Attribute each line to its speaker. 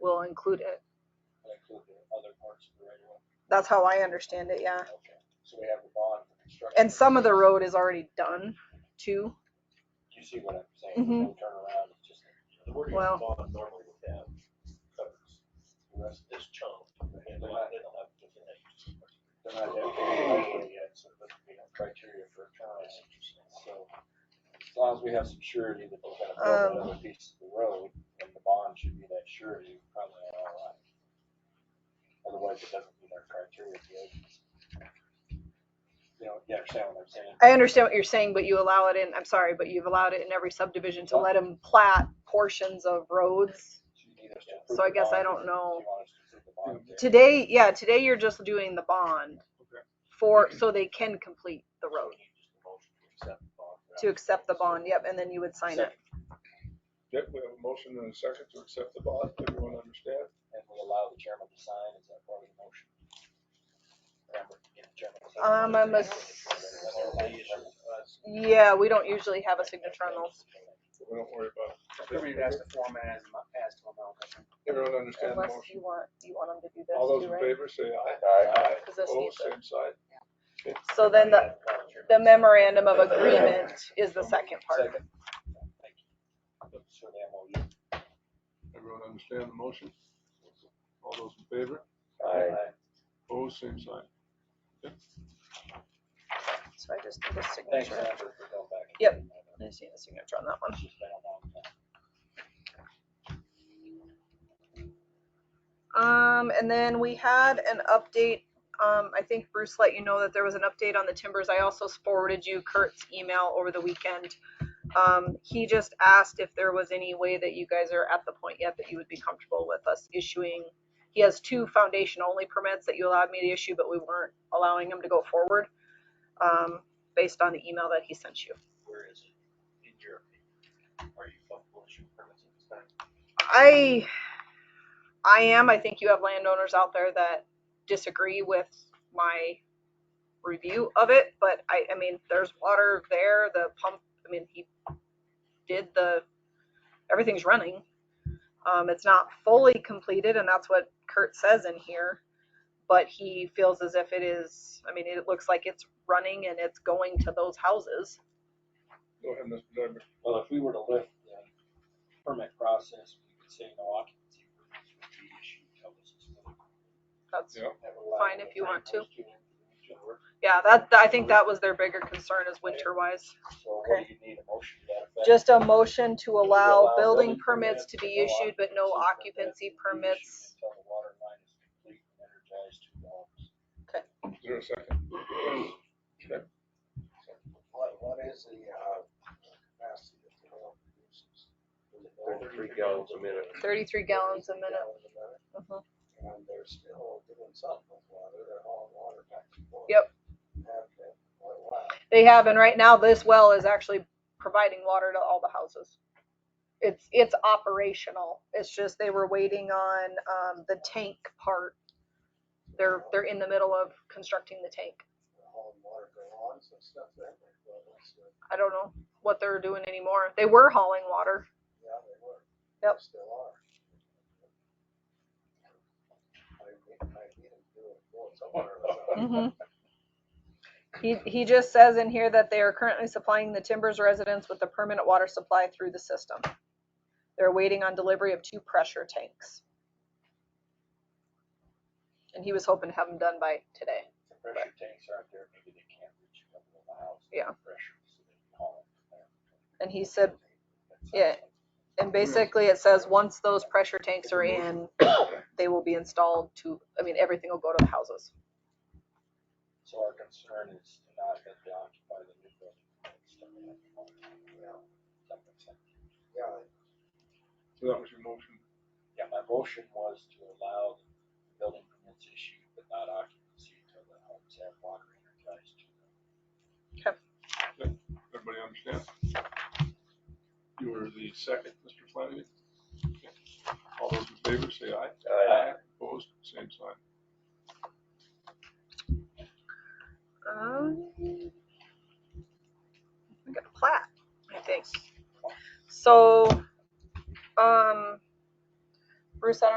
Speaker 1: will include it.
Speaker 2: and include the other parts of the right of way.
Speaker 1: That's how I understand it, yeah.
Speaker 2: Okay, so we have the bond for construction.
Speaker 1: And some of the road is already done too.
Speaker 2: You see what I'm saying, no
Speaker 1: Mm-hmm.
Speaker 2: turnaround, it's just.
Speaker 3: The wording
Speaker 1: Well-
Speaker 3: of the bond normally would have covers the rest of this chunk, and they're not, they don't have different names.
Speaker 2: They're not dedicated right away yet, so there doesn't be no criteria for a turnaround. So as long as we have some surety that we're gonna
Speaker 1: Um.
Speaker 2: build another piece of the road, and the bond should be that surety, we're probably on our line. Otherwise, it doesn't meet our criteria. if you- You know, you understand what I'm saying?
Speaker 1: I understand what you're saying, but you allow it in, I'm sorry, but you've allowed it in every subdivision to let them plat portions of roads.
Speaker 2: So you need us to
Speaker 1: So I
Speaker 2: approve the
Speaker 1: guess I
Speaker 2: bond,
Speaker 1: don't know.
Speaker 2: or do you want us to approve the bond there?
Speaker 1: Today, yeah, today you're just doing the bond for, so they can complete the road,
Speaker 3: You just motion to accept the bond.
Speaker 1: to accept the bond, yep, and then you would sign it.
Speaker 4: Yep, we have a motion and a second to accept the bond, everyone understand?
Speaker 2: And we allow the chairman to sign, is that part of the motion? Remember, yeah, chairman to sign.
Speaker 1: Um, I'm a- Yeah, we don't usually have a signature on those
Speaker 4: but We don't worry about
Speaker 5: I mean, that's the format as, as to amount, I think.
Speaker 4: it. Everyone understand the
Speaker 1: unless
Speaker 4: motion?
Speaker 1: you want, you want them to do
Speaker 4: All
Speaker 1: this
Speaker 4: those
Speaker 1: too,
Speaker 4: in
Speaker 1: right?
Speaker 4: favor say aye.
Speaker 2: Aye.
Speaker 1: Because this
Speaker 4: Oh,
Speaker 1: needs to-
Speaker 4: same side.
Speaker 1: So then the, the memorandum of agreement is the second part.
Speaker 2: Second. Thank you. So the MOU.
Speaker 4: Everyone understand the motion? All those in favor? Oh, same sign.
Speaker 1: So I just need a
Speaker 2: Thanks,
Speaker 1: signature.
Speaker 2: Amber, for going back. and
Speaker 1: Yep.
Speaker 2: doing that.
Speaker 1: I just need a signature on that one.
Speaker 2: It's just been a long time.
Speaker 1: Um, and then we had an update. Um, I think Bruce let you know that there was an update on the timbers. I also forwarded you Kurt's email over the weekend. Um, he just asked if there was any way that you guys are at the point yet that you would be comfortable with us issuing. He has two foundation only permits that you allowed me to issue, but we weren't allowing him to go forward. Um, based on the email that he sent you.
Speaker 3: Where is it in your opinion? Are you comfortable issuing permits at this time?
Speaker 1: I, I am, I think you have landowners out there that disagree with my review of it, but I, I mean, there's water there, the pump, I mean, he did the, everything's running. Um, it's not fully completed, and that's what Kurt says in here, but he feels as if it is, I mean, it looks like it's running and it's going to those houses.
Speaker 4: Go ahead, Mr. Dunbar.
Speaker 2: Well, if we were to lift the permit process, we could say no occupancy permits would be issued till this is. fully completed.
Speaker 1: That's,
Speaker 4: Yeah.
Speaker 2: That would allow
Speaker 1: Fine,
Speaker 2: the
Speaker 1: if you want to.
Speaker 2: landowners do their work.
Speaker 1: yeah, that, I think that was their bigger concern is winter wise.
Speaker 2: So what do you need a motion to that effect?
Speaker 1: Just a motion to
Speaker 2: allow
Speaker 1: allow building
Speaker 2: building
Speaker 1: permits to be
Speaker 2: permits, no
Speaker 1: issued, but no
Speaker 2: occupancy
Speaker 1: occupancy permits.
Speaker 2: Until the water line is complete and energized to dogs.
Speaker 4: Is there a second?
Speaker 5: What, what is the, uh, capacity that the oil produces? Is it over
Speaker 3: Three gallons a minute.
Speaker 1: Thirty-three gallons a
Speaker 5: three
Speaker 1: minute.
Speaker 5: gallons a minute?
Speaker 1: Mhm.
Speaker 5: And they're still doing something with water, they're hauling water back and forth.
Speaker 1: Yep.
Speaker 5: Have been for a while.
Speaker 1: They have, and right now this well is actually providing water to all the houses. It's, it's operational. It's just they were waiting on, um, the tank part. They're, they're in the middle of constructing the tank.
Speaker 5: They're hauling water, go on, so stuff that way, well, that's, uh,
Speaker 1: I don't know what they're doing anymore. They were hauling water.
Speaker 5: yeah, they were.
Speaker 1: Yep.
Speaker 5: They Still are. I mean, I need to do it for somewhere.
Speaker 1: He, he just says in here that they are currently supplying the Timbers residents with the permanent water supply through the system. They're waiting on delivery of two pressure tanks. And he was hoping to have them done by today.
Speaker 2: The pressure tanks aren't there, maybe they can't reach a couple of miles. of
Speaker 1: Yeah.
Speaker 2: Pressure, so they haul it from there.
Speaker 1: And he said,
Speaker 2: That's-
Speaker 1: Yeah. and basically it says, once those pressure tanks are in, they will be installed to, I mean, everything will go to the houses.
Speaker 2: So our concern is not that they occupy the new building. but it's that they occupy the old one. That makes sense.
Speaker 5: Yeah,
Speaker 4: So that was your motion.
Speaker 2: Yeah, my motion was to allow the building permits issued, but not occupancy until the homes have water energized to them.
Speaker 4: Everybody understand? You were the second, Mr. Flanagan? Okay. All those in favor say aye.
Speaker 2: Aye.
Speaker 4: Opposed, same sign.
Speaker 1: Um, um,